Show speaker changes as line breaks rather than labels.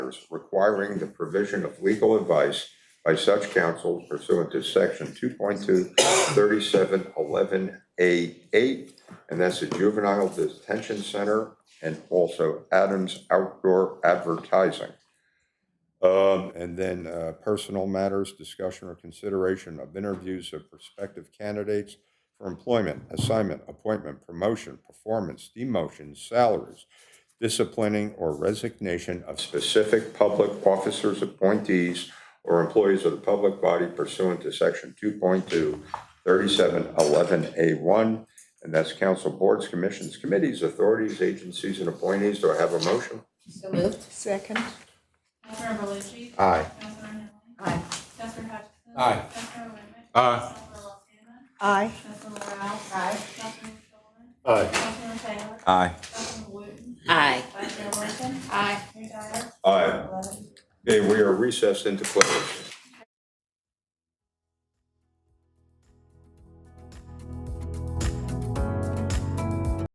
conference requiring the provision of legal advice by such counsel pursuant to section two point two thirty-seven eleven A eight, and that's the juvenile detention center and also Adams Outdoor Advertising. Um, and then, uh, personal matters, discussion or consideration of interviews of prospective candidates for employment, assignment, appointment, promotion, performance, demotion, salaries, disciplining or resignation of specific public officers, appointees, or employees of the public body pursuant to section 2.2, 3711A1, and that's council boards, commissions, committees, authorities, agencies, and appointees. Do I have a motion?
So moved.
Second.
Councilmember Berluci.
Aye.
Councilmember Henley.
Aye.
Councilmember Hutchinson.
Aye.
Councilmember Whitman.
Aye.
Councilmember Lozano.
Aye.
Councilmember Rouse.
Aye.
Councilmember Shulman.
Aye.
Councilmember Taylor.
Aye.
Councilmember Wooten.
Aye.
Vice Chair Wilson. Aye. Mayor Dyer.
Aye.
Eleven.
Okay, we are recessed into closed.